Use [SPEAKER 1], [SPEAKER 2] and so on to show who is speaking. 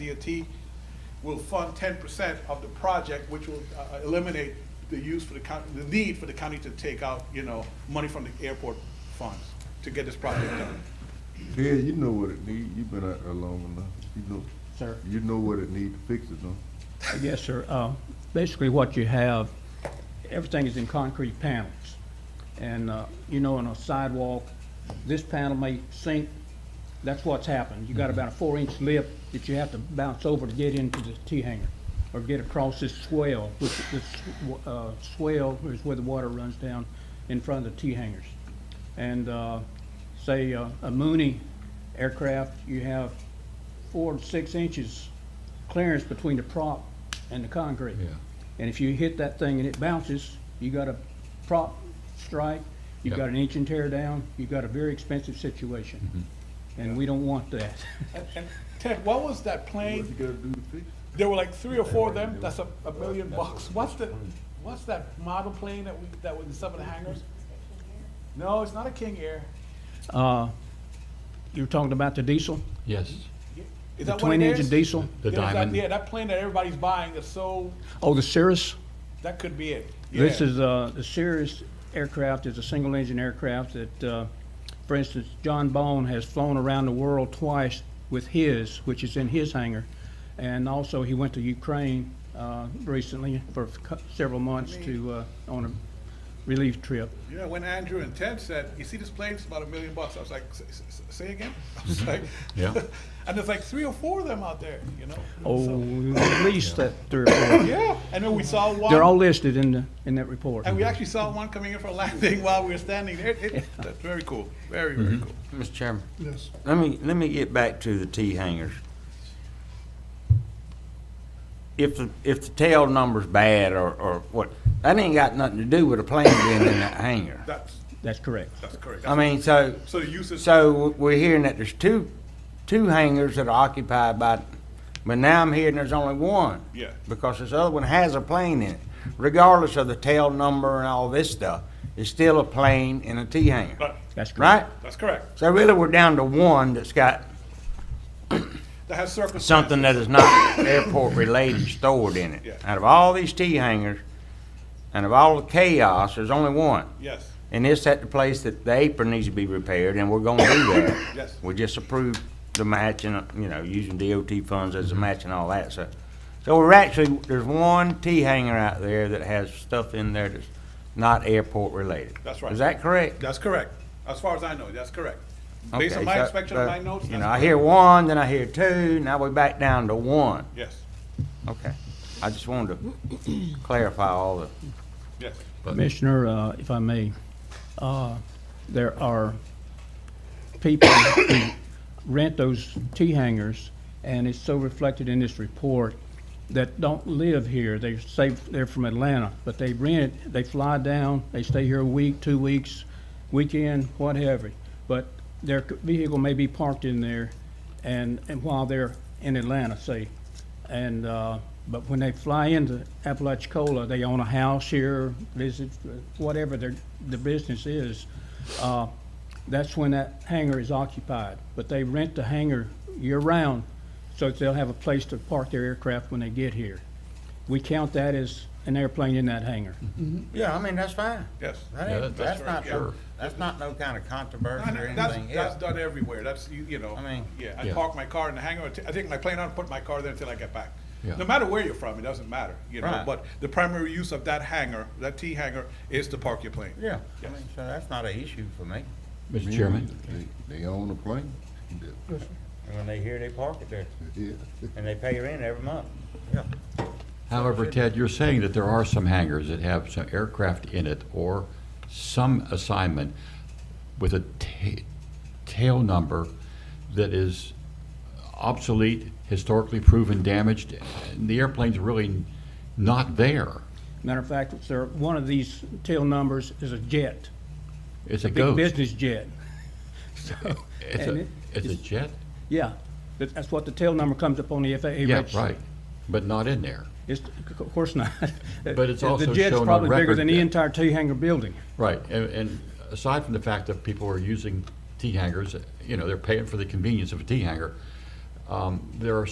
[SPEAKER 1] DOT will fund ten percent of the project, which will uh, eliminate the use for the county, the need for the county to take out, you know, money from the airport funds to get this project done.
[SPEAKER 2] Yeah, you know what it need, you've been out there long enough, you know.
[SPEAKER 3] Sir.
[SPEAKER 2] You know what it need to fix it, though.
[SPEAKER 3] Yes, sir. Uh, Basically, what you have, everything is in concrete panels. And, uh, you know, on a sidewalk, this panel may sink. That's what's happened. You got about a four-inch lip that you have to bounce over to get into the T-hanger or get across this swell, which this sw- uh, swell is where the water runs down in front of the T-hangers. And uh, say, uh, a Mooney aircraft, you have four to six inches clearance between the prop and the concrete. And if you hit that thing and it bounces, you got a prop strike, you
[SPEAKER 4] Yeah.
[SPEAKER 3] got an inch and tear down, you got a very expensive situation. And we don't want that.
[SPEAKER 1] And- and Ted, what was that
[SPEAKER 2] What
[SPEAKER 1] plane?
[SPEAKER 2] you gotta do to fix it?
[SPEAKER 1] There were like three or four of them, that's a, a million bucks. What's the, what's that model plane that we, that was in some of the hangars? No, it's not a King Air.
[SPEAKER 3] Uh, You're talking about the diesel,
[SPEAKER 4] Yes,
[SPEAKER 1] Is
[SPEAKER 3] the
[SPEAKER 1] that what it is?
[SPEAKER 3] twin-engine diesel?
[SPEAKER 4] the
[SPEAKER 1] There's that- Yeah,
[SPEAKER 4] diamond.
[SPEAKER 1] that plane that everybody's buying is so,
[SPEAKER 3] Oh, the Cirrus?
[SPEAKER 1] that could be it.
[SPEAKER 3] This
[SPEAKER 1] Yeah.
[SPEAKER 3] is, uh, the Cirrus aircraft is a single-engine aircraft that, uh, for instance, John Bone has flown around the world twice with his, which is in his hangar. And also, he went to Ukraine uh, recently for cou- several months to, uh, on a relief trip.
[SPEAKER 1] Yeah, when Andrew and Ted said, "You see this plane? It's about a million bucks." I was like, "Say- say- "Say again?" I was like,
[SPEAKER 4] Yeah.
[SPEAKER 1] And there's like three or four of them out there, you know.
[SPEAKER 3] Oh,
[SPEAKER 1] So-
[SPEAKER 3] at least that three or four.
[SPEAKER 1] yeah. And then we saw one.
[SPEAKER 3] They're all listed in the, in that report.
[SPEAKER 1] and we actually saw one coming in for landing while we were standing there. It, it, That's very cool. Very very
[SPEAKER 3] Mm-hmm.
[SPEAKER 1] cool.
[SPEAKER 5] Mr. Chairman,
[SPEAKER 1] Yes.
[SPEAKER 5] let me, let me get back to the T hangers. If the, if the tail number's bad or, or what, that ain't got nothing to do with a plane being in that hangar.
[SPEAKER 1] That's
[SPEAKER 3] That's correct.
[SPEAKER 1] that's correct.
[SPEAKER 5] I mean, so,
[SPEAKER 1] so the use is
[SPEAKER 5] so we're hearing that there's two, two hangars that are occupied by, but now I'm hearing there's only one.
[SPEAKER 1] Yeah.
[SPEAKER 5] Because this other one has a plane in it, regardless of the tail number and all this stuff, it's still a plane in a T hangar,
[SPEAKER 1] right.
[SPEAKER 3] That's correct.
[SPEAKER 5] right?
[SPEAKER 1] That's correct.
[SPEAKER 5] So really, we're down to one that's got
[SPEAKER 1] That has circumstances.
[SPEAKER 5] something that is not airport-related stored in
[SPEAKER 1] Yeah.
[SPEAKER 5] it. Out of all these tea hangers, and of all the chaos, there's only one.
[SPEAKER 1] Yes.
[SPEAKER 5] And it's at the place that the apron needs to be repaired, and we're gonna do that.
[SPEAKER 1] Yes.
[SPEAKER 5] We just approved the matching, you know, using DOT funds as a
[SPEAKER 1] Mm-hmm.
[SPEAKER 5] match and all that, so. So we're actually, there's one tea hanger out there that has stuff in there that's not airport-related.
[SPEAKER 1] That's right.
[SPEAKER 5] Is that correct?
[SPEAKER 1] That's correct. As far as I know, that's correct. Based on
[SPEAKER 5] Okay,
[SPEAKER 1] my
[SPEAKER 5] so-
[SPEAKER 1] inspection of
[SPEAKER 5] but,
[SPEAKER 1] my notes.
[SPEAKER 5] You
[SPEAKER 1] that's
[SPEAKER 5] know, I
[SPEAKER 1] correct.
[SPEAKER 5] hear one, then I hear two, now we're back down to one.
[SPEAKER 1] Yes.
[SPEAKER 5] Okay, I just wanted to clarify all the,
[SPEAKER 1] Yes.
[SPEAKER 3] Commissioner, uh, if I may, uh, there are people who rent those T hangers, and it's so reflected in this report, that don't live here. They say they're from Atlanta, but they rent it, they fly down, they stay here a week, two weeks, weekend, whatever. But their c- vehicle may be parked in there, and, and while they're in Atlanta, say, and, uh, but when they fly into Apalachicola, they own a house here, visit, whatever their, the business is, uh, that's when that hangar is occupied. But they rent the hangar year-round, so that they'll have a place to park their aircraft when they get here. We count that as an airplane in that hangar.
[SPEAKER 4] Mm-hmm.
[SPEAKER 5] yeah, I mean, that's fine.
[SPEAKER 1] Yes.
[SPEAKER 5] That
[SPEAKER 4] Yeah,
[SPEAKER 5] ain't,
[SPEAKER 4] that's
[SPEAKER 5] that's not,
[SPEAKER 1] right, yeah.
[SPEAKER 5] no- that's not no kind of
[SPEAKER 1] No,
[SPEAKER 5] controversy
[SPEAKER 1] no,
[SPEAKER 5] or
[SPEAKER 1] That's,
[SPEAKER 5] anything
[SPEAKER 1] that's
[SPEAKER 5] else.
[SPEAKER 1] done everywhere, that's, you, you know.
[SPEAKER 5] I mean-
[SPEAKER 1] Yeah, I
[SPEAKER 4] Yeah.
[SPEAKER 1] park my car in the hangar, I ta- I take my plane out and put my car there until I get back.
[SPEAKER 4] Yeah.
[SPEAKER 1] No matter where you're from, it doesn't matter, you know,
[SPEAKER 5] Right.
[SPEAKER 1] but the primary use of that hangar, that T hangar, is to park your plane.
[SPEAKER 5] Yeah, I mean, so that's not an issue for me.
[SPEAKER 4] Mr. Chairman,
[SPEAKER 2] They they own the plane, Yeah,
[SPEAKER 5] And when they hear, they park it there,
[SPEAKER 2] yeah.
[SPEAKER 5] and they pay rent every month. Yeah.
[SPEAKER 4] however, Ted, you're saying that there are some hangars that have some aircraft in it or some assignment with a ta- tail number that is obsolete, historically proven, damaged, and the airplane's really not there.
[SPEAKER 3] Matter of fact, sir, one of these tail numbers is a jet,
[SPEAKER 4] It's a
[SPEAKER 3] big
[SPEAKER 4] ghost.
[SPEAKER 3] business jet.
[SPEAKER 4] It's
[SPEAKER 3] and
[SPEAKER 4] a,
[SPEAKER 3] it-
[SPEAKER 4] it's a
[SPEAKER 3] it's-
[SPEAKER 4] jet?
[SPEAKER 3] Yeah, that- that's what the tail number comes up on the FAA
[SPEAKER 4] Yeah,
[SPEAKER 3] register.
[SPEAKER 4] right, but not in there.
[SPEAKER 3] It's, of course not.
[SPEAKER 4] But it's also
[SPEAKER 3] The jet's
[SPEAKER 4] shown on
[SPEAKER 3] probably bigger
[SPEAKER 4] record
[SPEAKER 3] than the
[SPEAKER 4] that-
[SPEAKER 3] entire T hangar building.
[SPEAKER 4] Right, and, and aside from the fact that people are using tea hangers, you know, they're paying for the convenience of a tea hanger, um, there are